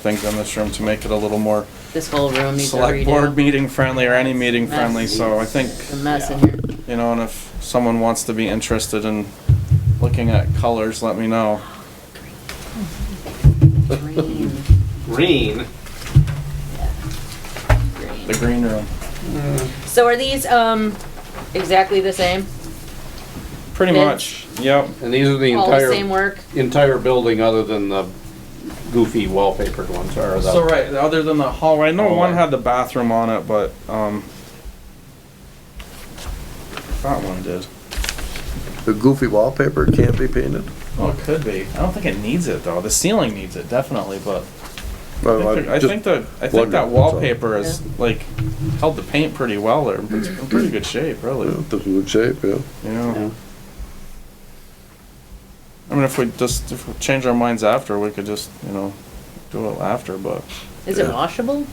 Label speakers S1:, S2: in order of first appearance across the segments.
S1: things in this room to make it a little more
S2: This whole room needs a
S1: select board
S2: redo.
S1: meeting friendly or any meeting friendly, so I think,
S2: It's a mess in here.
S1: you know, and if someone wants to be interested in looking at colors, let me know.
S2: Green,
S3: Green.
S1: The
S2: green.
S1: green room.
S2: So are these, um, exactly the same?
S1: Pretty
S2: Bids?
S1: much, yep.
S3: And these are the
S2: All the
S3: entire
S2: same work?
S3: entire building, other than the goofy wallpapered ones, or the
S1: So, right, other than the hallway, I know one
S3: Hallway.
S1: had the bathroom on it, but, um, that one did.
S4: The goofy wallpaper can't be painted.
S1: Oh, it could be. I don't think it needs it, though. The ceiling needs it, definitely, but
S4: No,
S1: I think,
S4: I
S1: I
S4: just-
S1: think that I think
S4: wondered,
S1: that
S4: that's all.
S1: wallpaper is like held the paint pretty well there. It's in pretty good shape,
S4: Mm-hmm. yeah,
S1: really. You
S4: This is good shape, yeah.
S1: know.
S3: Yeah.
S1: I mean, if we just if we change our minds after, we could just you know do it after. But
S2: Is it
S4: Yeah.
S2: washable?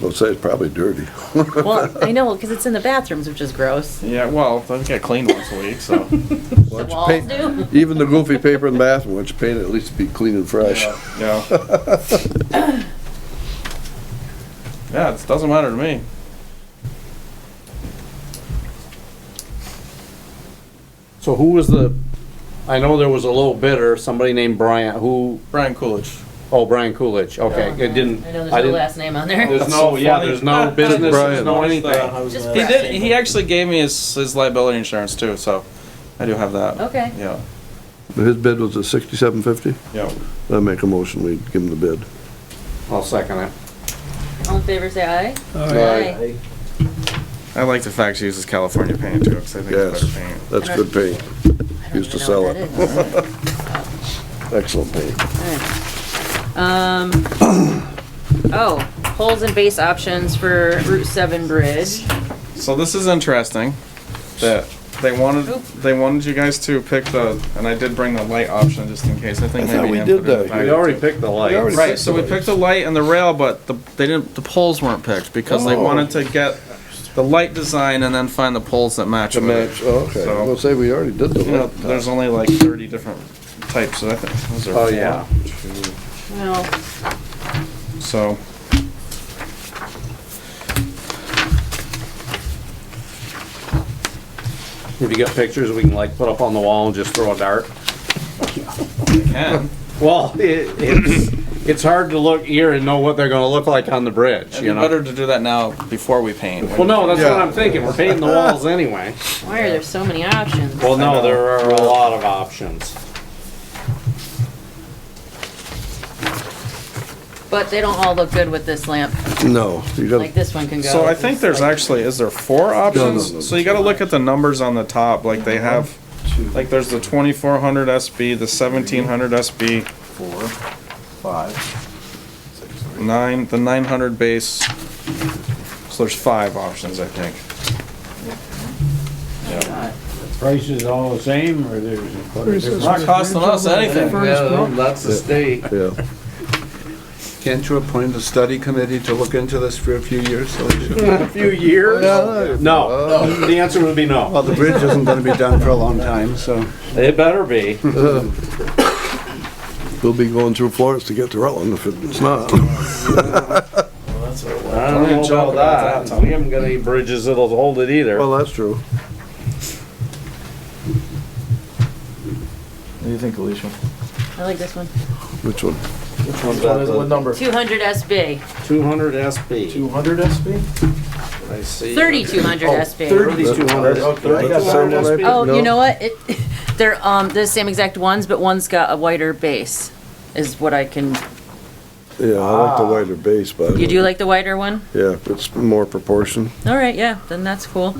S4: They'll say it's probably dirty.
S2: Well, I know, cause it's in the bathrooms, which is gross.
S1: yeah, well, I think I clean once a week, so
S4: Why
S2: The
S4: don't you
S2: walls
S4: paint-
S2: do?
S4: Even the goofy paper in the bathroom, once you paint it, at least be clean and fresh.
S1: yeah, yeah. yeah, it doesn't matter to me.
S3: So who was the? I know there was a low bidder, somebody named Brian. Who?
S1: Brian Coolidge.
S3: Oh, Brian Coolidge. Okay, it didn't.
S2: I know there's
S3: I
S2: no
S3: didn't.
S2: last name on there.
S3: There's
S1: That's
S3: no.
S1: so
S3: yeah.
S1: funny.
S3: There's no business. There's
S4: Brian.
S3: no anything.
S2: Just
S1: He
S2: press.
S1: did. He actually gave me his his liability insurance too, so I do have that.
S2: Okay.
S1: Yeah.
S4: His bid was a sixty-seven fifty?
S1: Yeah.
S4: I make a motion, we give him the bid.
S3: I'll second it.
S2: All in favor, say aye.
S3: Aye.
S1: I like the fact she uses California paint too, because I think
S4: Yes,
S1: it's better paint.
S4: that's good paint.
S2: I don't
S4: Used to
S2: even know
S4: sell
S2: what
S4: it.
S2: that is.
S4: Excellent paint.
S2: Alright. Um, oh, holes and base options for Route Seven Bridge.
S1: So this is interesting. That they wanted
S2: Oop.
S1: they wanted you guys to pick the and I did bring the light option just in case. I think
S4: I thought
S1: maybe
S4: we
S1: Ian
S4: did
S1: put it in
S4: that.
S1: the
S4: We
S1: packet, too.
S3: picked the light.
S4: already-
S1: Right, so we picked the light and the rail, but the they didn't the poles weren't picked because they
S4: Oh.
S1: wanted to get the light design and then find the poles that match.
S4: To
S1: with it.
S4: match, oh, okay,
S1: So-
S4: I'm gonna say we already did the
S1: You know,
S4: light.
S1: there's only like 30 different types, so I think those are.
S3: Oh yeah.
S2: Well,
S1: So.
S3: If you got pictures, we can like put up on the wall and just throw a dart.
S1: Can.
S3: Well, it, it's it's hard to look here and know what they're going to look like on the bridge.
S1: It'd
S3: You
S1: be
S3: know.
S1: better to do that now before we paint.
S3: Well, no, that's what
S4: Yeah.
S3: I'm thinking. We're painting the walls anyway.
S2: why are there so many options?
S3: Well,
S1: I know.
S3: no, there are a lot of options.
S2: But they don't all look good with this lamp.
S4: No, you
S2: Like
S4: gotta,
S2: this one can go.
S1: So I
S2: It's
S1: think there's
S2: like-
S1: actually, is there four
S4: no, no,
S1: options? So you gotta look at the numbers on the top, like they have,
S4: Two.
S1: like there's the twenty-four hundred SB, the seventeen hundred SB,
S4: four, five,
S1: nine, the nine hundred base. So there's five options, I think. Yeah.
S5: prices all the same, or there's?
S1: It's not costing us anything.
S6: Yeah, that's the state.
S4: yeah.
S6: Can't you appoint a study committee to look into this for a few years? so we should-
S3: A few years? Oh. No, the answer would be no.
S6: Well, the bridge isn't gonna be done for a long time, so.
S3: It better be.
S4: We'll be going through Florence to get to Rutland if it's not.
S3: I don't know
S1: joke about
S3: about that. We haven't got any bridges that'll hold it either.
S4: Well, that's true.
S1: What do you think, Alicia?
S2: I like this one.
S4: Which one?
S6: number?
S2: Two hundred SB,
S3: Two hundred SB.
S6: hundred SB?
S3: I see.
S2: thirty-two hundred SB.
S3: Thirty two hundred.
S6: Okay.
S2: Oh,
S4: No.
S2: you know what? It, they're, um, the same exact ones, but one's got a wider base, is what I can,
S4: Yeah, I like the wider base, but.
S2: you do like the wider one?
S4: Yeah, it's more proportion.
S2: All right, yeah, then that's cool.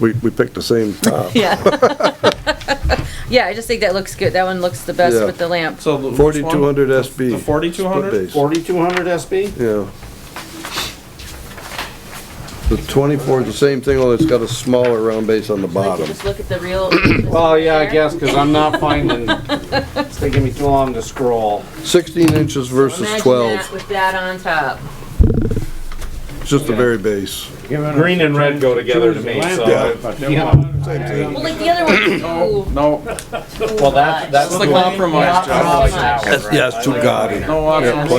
S4: We, we picked the same uh, top.
S2: Yeah. Yeah, I just think that looks good. That one looks the best
S4: Yeah.
S2: with the lamp.
S1: So the- which one?
S4: Forty-two hundred SB.
S1: The 4200?
S4: Split base.
S3: Forty two hundred SB?
S4: Yeah. The twenty-four is the same thing, only it's got a smaller round base on the
S2: Like, you
S4: bottom.
S2: just look at the real.
S3: Well, Oh, yeah, I guess, cause I'm not finding, it's taking me too long to scroll.
S4: Sixteen inches versus
S2: Imagine that
S4: twelve.
S2: With that on top.
S4: It's just the very base.
S5: Given
S7: Green and red go together to
S5: choose the
S7: me, so
S5: landlord, but they want-
S2: Well, like the other one's too,
S1: No,
S2: too
S3: Well, that's,
S2: much.
S3: that's.
S1: It's the compromise,
S3: Not
S1: Joe.
S3: compromise.
S4: Yeah, it's too gaudy.
S1: no options.